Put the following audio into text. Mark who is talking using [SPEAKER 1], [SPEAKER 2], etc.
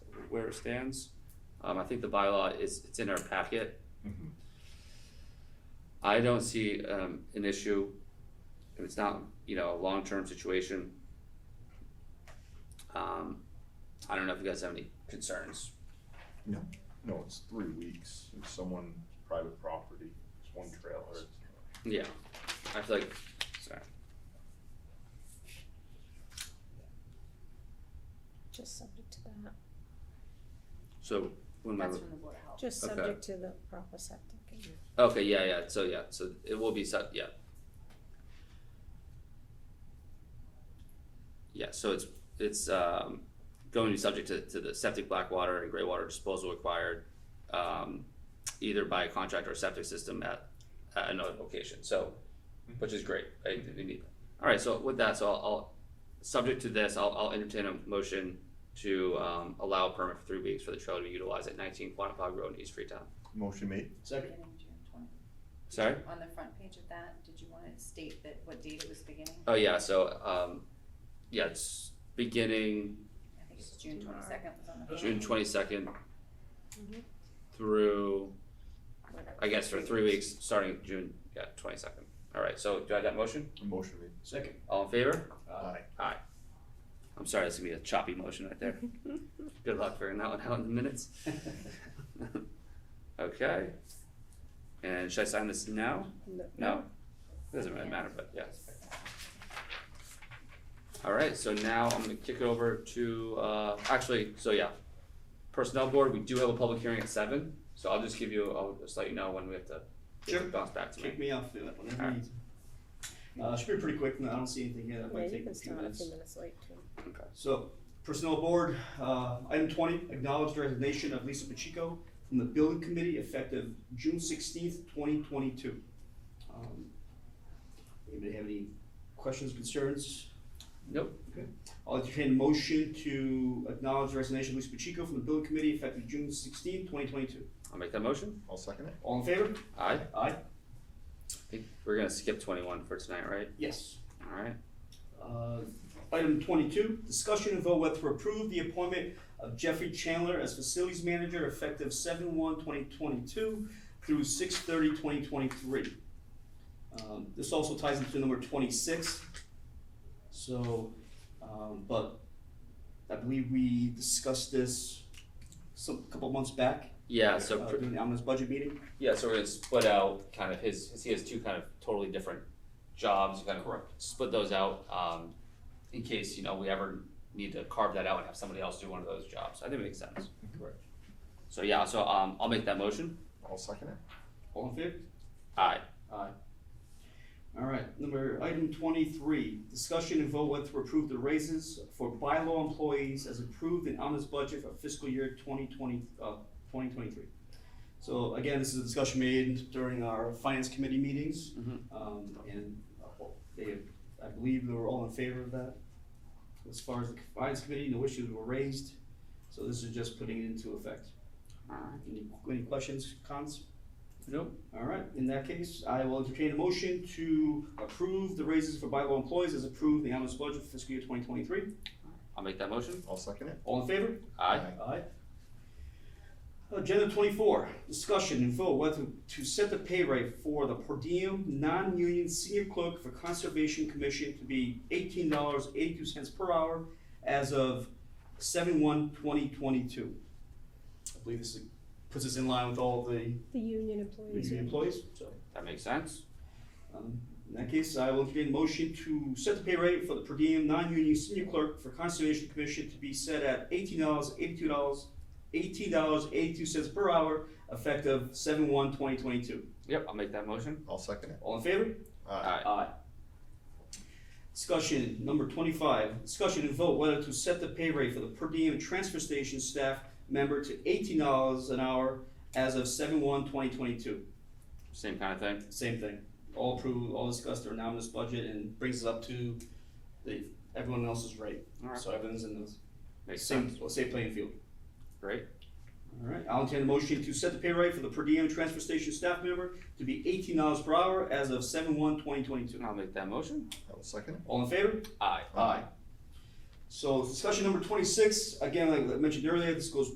[SPEAKER 1] where it stands. Um, I think the bylaw is, it's in our packet.
[SPEAKER 2] Mhm.
[SPEAKER 1] I don't see, um, an issue. If it's not, you know, a long-term situation. Um, I don't know if you guys have any concerns.
[SPEAKER 2] No, it's three weeks, it's someone, private property, it's one trailer.
[SPEAKER 1] Yeah, I feel like, sorry.
[SPEAKER 3] Just subject to that,
[SPEAKER 1] So when my,
[SPEAKER 4] That's from the Board of Health.
[SPEAKER 3] just
[SPEAKER 1] Okay.
[SPEAKER 3] subject to the proper septic. and-
[SPEAKER 1] okay, yeah, yeah, so yeah, so it will be set, yeah. Yeah, so it's, it's, um, going to be subject to, to the septic black water and gray water disposal required, um, either by a contract or septic system at, at another location, so, which is great, I, think we need. Alright, so with that, so I'll, I'll, subject to this, I'll, I'll entertain a motion to, um, allow a permit for three weeks for the trailer to be utilized at nineteen Quantapug Road in East Freetown.
[SPEAKER 2] Motion made,
[SPEAKER 5] Second.
[SPEAKER 4] Beginning June 20.
[SPEAKER 1] Sorry?
[SPEAKER 4] On the front page of that, did you wanna state that what date it was beginning?
[SPEAKER 1] Oh yeah, so um, yeah, it's beginning
[SPEAKER 4] I think it's June twenty-second was on the. front
[SPEAKER 1] June
[SPEAKER 4] page.
[SPEAKER 1] twenty second
[SPEAKER 3] Mhm.
[SPEAKER 1] through
[SPEAKER 4] Whatever.
[SPEAKER 1] I guess for three weeks, starting June yeah twenty second. All right, so do I have that motion?
[SPEAKER 2] motion made.
[SPEAKER 5] Second.
[SPEAKER 1] All in favor?
[SPEAKER 2] Aye.
[SPEAKER 1] I'm sorry, that's gonna be a choppy motion right there. Good luck figuring that one out in the minutes. okay. And should I sign this now?
[SPEAKER 3] No.
[SPEAKER 1] No, it doesn't really matter, but yes. Alright, so now I'm gonna kick it over to, uh, actually, so yeah, personnel board, we do have a public hearing at seven, so I'll just give you, I'll just let you know when we have to. get it
[SPEAKER 5] Sure.
[SPEAKER 1] Bounced back to
[SPEAKER 5] Kick
[SPEAKER 1] me.
[SPEAKER 5] me off, do it whenever you
[SPEAKER 1] Alright.
[SPEAKER 5] need. Uh, should be pretty quick, no, I don't see anything here that
[SPEAKER 3] Yeah, you
[SPEAKER 5] might take a
[SPEAKER 3] can
[SPEAKER 5] few
[SPEAKER 3] start a
[SPEAKER 5] minutes.
[SPEAKER 3] few minutes late too.
[SPEAKER 1] Okay.
[SPEAKER 5] So, personnel board, uh, item twenty, acknowledge the resignation of Lisa Pacheco from the building committee effective June sixteenth, twenty twenty-two. Um, Anybody have any questions, concerns?
[SPEAKER 1] Nope,
[SPEAKER 5] I'll entertain a motion to acknowledge the resignation of Lisa Pacheco from the building committee effective June sixteenth, twenty twenty-two.
[SPEAKER 1] I'll make that motion.
[SPEAKER 2] I'll second it.
[SPEAKER 5] All in favor?
[SPEAKER 1] Aye,
[SPEAKER 5] Aye.
[SPEAKER 1] I think we're gonna skip twenty-one for tonight, right?
[SPEAKER 5] Yes.
[SPEAKER 1] Alright,
[SPEAKER 5] Uh, Item twenty-two, discussion and vote whether to approve the appointment of Jeffrey Chandler as facilities manager effective seven one 2022 through 6/30, 2023. Um, this also ties into number twenty-six. So, um, but I believe we discussed this some, couple months back,
[SPEAKER 1] yeah,
[SPEAKER 5] uh,
[SPEAKER 1] so, pr-
[SPEAKER 5] during the omnibus budget meeting.
[SPEAKER 1] yeah, so we're gonna split out kind of his, his- he has two kind of totally different jobs, kind of split those out, um, in case, you know, we ever need to carve that out and have somebody else do one of those jobs. I think it makes sense.
[SPEAKER 2] Correct.
[SPEAKER 1] So yeah, so um, I'll make that motion.
[SPEAKER 2] I'll second it.
[SPEAKER 5] All in favor?
[SPEAKER 1] Aye.
[SPEAKER 5] All right, number, item twenty-three, discussion and vote whether to approve the raises for bylaw employees as approved in Alma's budget for fiscal year twenty twenty, uh, twenty twenty-three. So again, this is a discussion made during our finance committee meetings,
[SPEAKER 1] Mhm.
[SPEAKER 5] um, and uh, well, they, I believe they were all in favor of that. As far as the finance committee, no issues were raised, so this is just putting it into effect.
[SPEAKER 1] Alright.
[SPEAKER 5] Any, any questions, cons?
[SPEAKER 1] Nope.
[SPEAKER 5] All right, in that case, I will entertain a motion to approve the raises for bylaw employees as approved in the omnibus budget for fiscal year twenty twenty-three.
[SPEAKER 1] I'll make that motion.
[SPEAKER 2] I'll second it.
[SPEAKER 5] All in favor?
[SPEAKER 1] Aye.
[SPEAKER 5] Aye. Agenda twenty-four, discussion and vote whether to set the pay rate for the per diem non-union senior clerk for Conservation Commission to be eighteen dollars eighty-two cents per hour as of seven one twenty twenty-two. I believe this is- puts us in line with all the
[SPEAKER 3] The union employees.
[SPEAKER 5] union employees, so.
[SPEAKER 1] That makes sense.
[SPEAKER 5] Um, In that case, I will entertain a motion to set the pay rate for the per diem non-union senior clerk for Conservation Commission to be set at eighteen dollars, eighty-two dollars, eighteen dollars, eighty-two cents per hour, effective seven one twenty twenty-two.
[SPEAKER 1] Yep, I'll make that motion.
[SPEAKER 2] I'll second it.
[SPEAKER 5] All in favor?
[SPEAKER 2] Aye.
[SPEAKER 5] Aye. Discussion number twenty-five, discussion and vote whether to set the pay rate for the per diem transfer station staff member to eighteen dollars an hour as of seven one twenty twenty-two.
[SPEAKER 1] Same kind of thing.
[SPEAKER 5] Same thing. All approved, all discussed their anonymous budget and brings us up to the, everyone else's rate.
[SPEAKER 1] Alright.
[SPEAKER 5] So everyone's in the
[SPEAKER 1] Makes
[SPEAKER 5] same,
[SPEAKER 1] sense.
[SPEAKER 5] well, same playing field.
[SPEAKER 1] Great.
[SPEAKER 5] Alright, I'll entertain a motion to set the pay rate for the per diem transfer station staff member to be eighteen dollars per hour as of seven one twenty twenty-two.
[SPEAKER 1] I'll make that motion.
[SPEAKER 2] I will second it.
[SPEAKER 5] All in favor?
[SPEAKER 1] Aye.
[SPEAKER 5] So discussion number twenty-six, again, like I mentioned earlier, this goes